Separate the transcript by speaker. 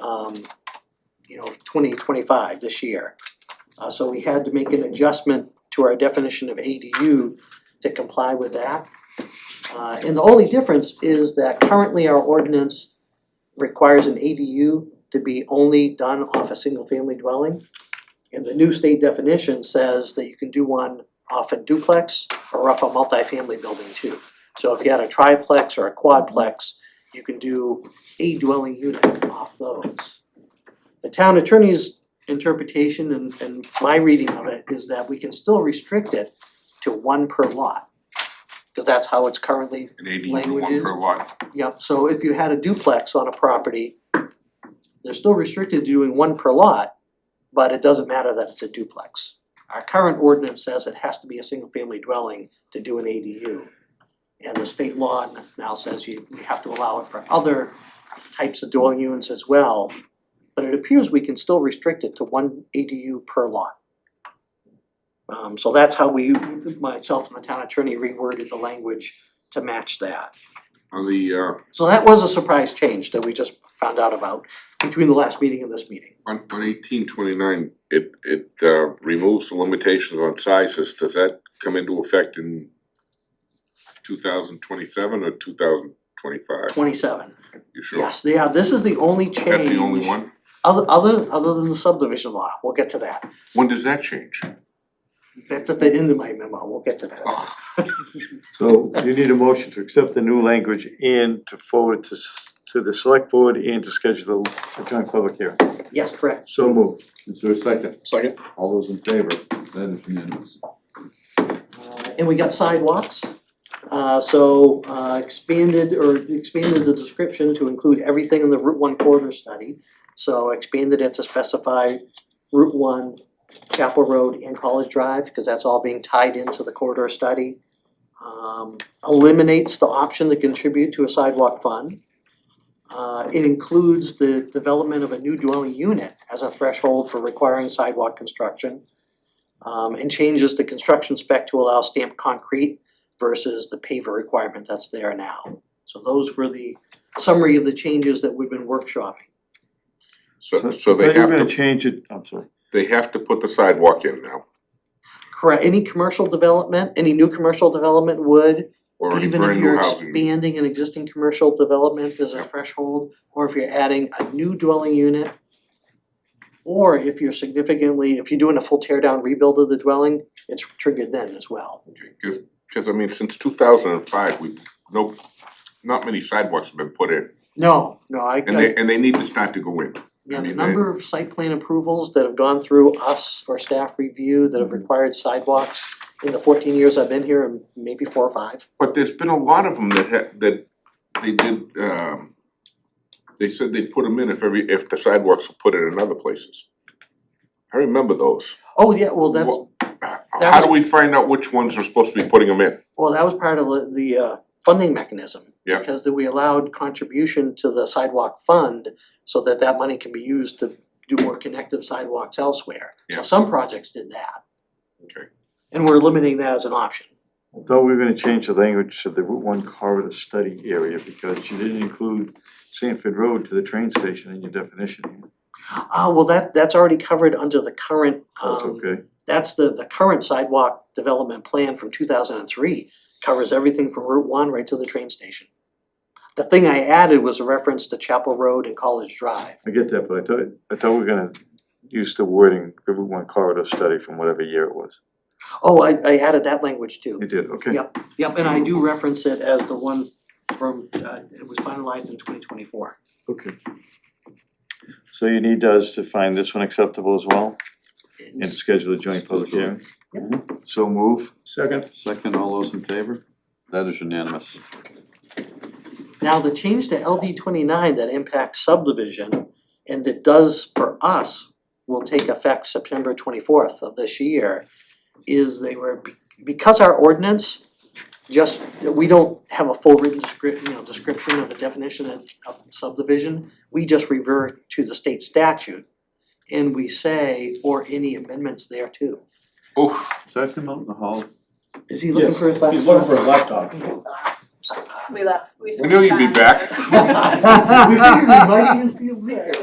Speaker 1: um, you know, twenty twenty-five this year. Uh, so we had to make an adjustment to our definition of ADU to comply with that. Uh, and the only difference is that currently our ordinance requires an ADU to be only done off a single-family dwelling. And the new state definition says that you can do one off a duplex or off a multifamily building too. So if you had a triplex or a quadplex, you can do a dwelling unit off those. The town attorney's interpretation and and my reading of it is that we can still restrict it to one per lot. Cause that's how it's currently
Speaker 2: An ADU to one per
Speaker 1: Languages.
Speaker 2: lot,
Speaker 1: Yep, so if you had a duplex on a property, they're still restricted to doing one per lot, but it doesn't matter that it's a duplex. Our current ordinance says it has to be a single-family dwelling to do an ADU. And the state law now says you, we have to allow it for other types of dwelling units as well. But it appears we can still restrict it to one ADU per lot. Um, so that's how we, myself and the town attorney reworded the language to match that.
Speaker 2: Well, the uh
Speaker 1: So that was a surprise change that we just found out about between the last meeting and this meeting.
Speaker 2: on on eighteen twenty nine, it it uh removes the limitations on sizes, does that come into effect in two thousand twenty seven or two thousand twenty five,
Speaker 1: Twenty-seven,
Speaker 2: you sure?
Speaker 1: yes, yeah, this is the only change.
Speaker 2: That's the only one?
Speaker 1: Other, other, other than the subdivision law, we'll get to that.
Speaker 2: When does that change?
Speaker 1: That's at the end of my memo, we'll get to that.
Speaker 2: Oh,
Speaker 3: So you need a motion to accept the new language and to forward to s- to the select board and to schedule the joint public hearing.
Speaker 1: Yes, correct.
Speaker 3: So moved.
Speaker 4: Is there a second?
Speaker 1: Second.
Speaker 4: All those in favor, that is unanimous.
Speaker 1: And we got sidewalks, uh, so, uh, expanded or expanded the description to include everything in the Route One corridor study. So expanded it to specify Route One, Chapel Road and College Drive, because that's all being tied into the corridor study. Um, eliminates the option to contribute to a sidewalk fund. Uh, it includes the development of a new dwelling unit as a threshold for requiring sidewalk construction. Um, and changes the construction spec to allow stamped concrete versus the paver requirement that's there now. So those were the summary of the changes that we've been workshopping.
Speaker 2: So so they
Speaker 3: you're
Speaker 2: have
Speaker 3: gonna
Speaker 2: to,
Speaker 3: change it, I'm sorry.
Speaker 2: they have to put the sidewalk in now,
Speaker 1: Correct, any commercial development, any new commercial development would,
Speaker 2: or any
Speaker 1: even if
Speaker 2: brand new
Speaker 1: you're
Speaker 2: housing.
Speaker 1: expanding an existing commercial development, there's a
Speaker 2: Yep.
Speaker 1: threshold, or if you're adding a new dwelling unit. Or if you're significantly, if you're doing a full tear down rebuild of the dwelling, it's triggered then as well.
Speaker 2: Cause cause I mean, since two thousand and five, we, no, not many sidewalks have been put in,
Speaker 1: No, no, I,
Speaker 2: and
Speaker 1: I,
Speaker 2: they and they need to start to go in.
Speaker 1: yeah,
Speaker 2: I
Speaker 1: the
Speaker 2: mean, they-
Speaker 1: number of site plan approvals that have gone through us or staff review that
Speaker 2: Mm-hmm.
Speaker 1: have required sidewalks in the fourteen years I've been here, maybe four or five.
Speaker 2: But there's been a lot of them that ha- that they did, um, they said they put them in if every, if the sidewalks were put in in other places. I remember those.
Speaker 1: Oh, yeah, well, that's,
Speaker 2: Wha- How
Speaker 1: was-
Speaker 2: do we find out which ones are supposed to be putting them in?
Speaker 1: Well, that was part of the- the uh funding mechanism.
Speaker 2: Yeah.
Speaker 1: Because that we allowed contribution to the sidewalk fund so that that money can be used to do more connective sidewalks elsewhere.
Speaker 2: Yeah.
Speaker 1: So some projects did that.
Speaker 2: Okay.
Speaker 1: And we're eliminating that as an option.
Speaker 3: I Thought we were gonna change the language to the Route One corridor study area because you didn't include Sanford Road to the train station in your definition.
Speaker 1: Ah, well, that that's already covered under the current
Speaker 2: Oh,
Speaker 3: That's
Speaker 1: um,
Speaker 3: okay.
Speaker 1: that's the the current sidewalk development plan from two thousand and three. Covers everything from Route One right to the train station. The thing I added was a reference to Chapel Road and College Drive.
Speaker 3: I get that, but I thought, I thought we were gonna use the wording, the Route One corridor study from whatever year it was.
Speaker 1: Oh, I I added that language too.
Speaker 3: You did, okay.
Speaker 1: Yep. Yep, and I do reference it as the one from, uh, it was finalized in twenty twenty-four.
Speaker 3: Okay. So you need us to find this one acceptable as well and schedule a joint public hearing? So move. Second.
Speaker 4: Second, all those in favor, that is unanimous.
Speaker 1: Now, the change to LD twenty-nine that impacts subdivision, and it does for us, will take effect September twenty-fourth of this year, is they were, be- because our ordinance, just, we don't have a full written descrip- you know, description of a definition of of subdivision, we just revert to the state statute, and we say, or any amendments thereto.
Speaker 2: Oof,
Speaker 4: Does that come out in the hall?
Speaker 1: Is he looking for his laptop?
Speaker 5: He's looking for a laptop.
Speaker 6: We left, we
Speaker 2: we knew you'd be
Speaker 6: switched
Speaker 2: back.
Speaker 6: back.
Speaker 1: We figured we might even see him there.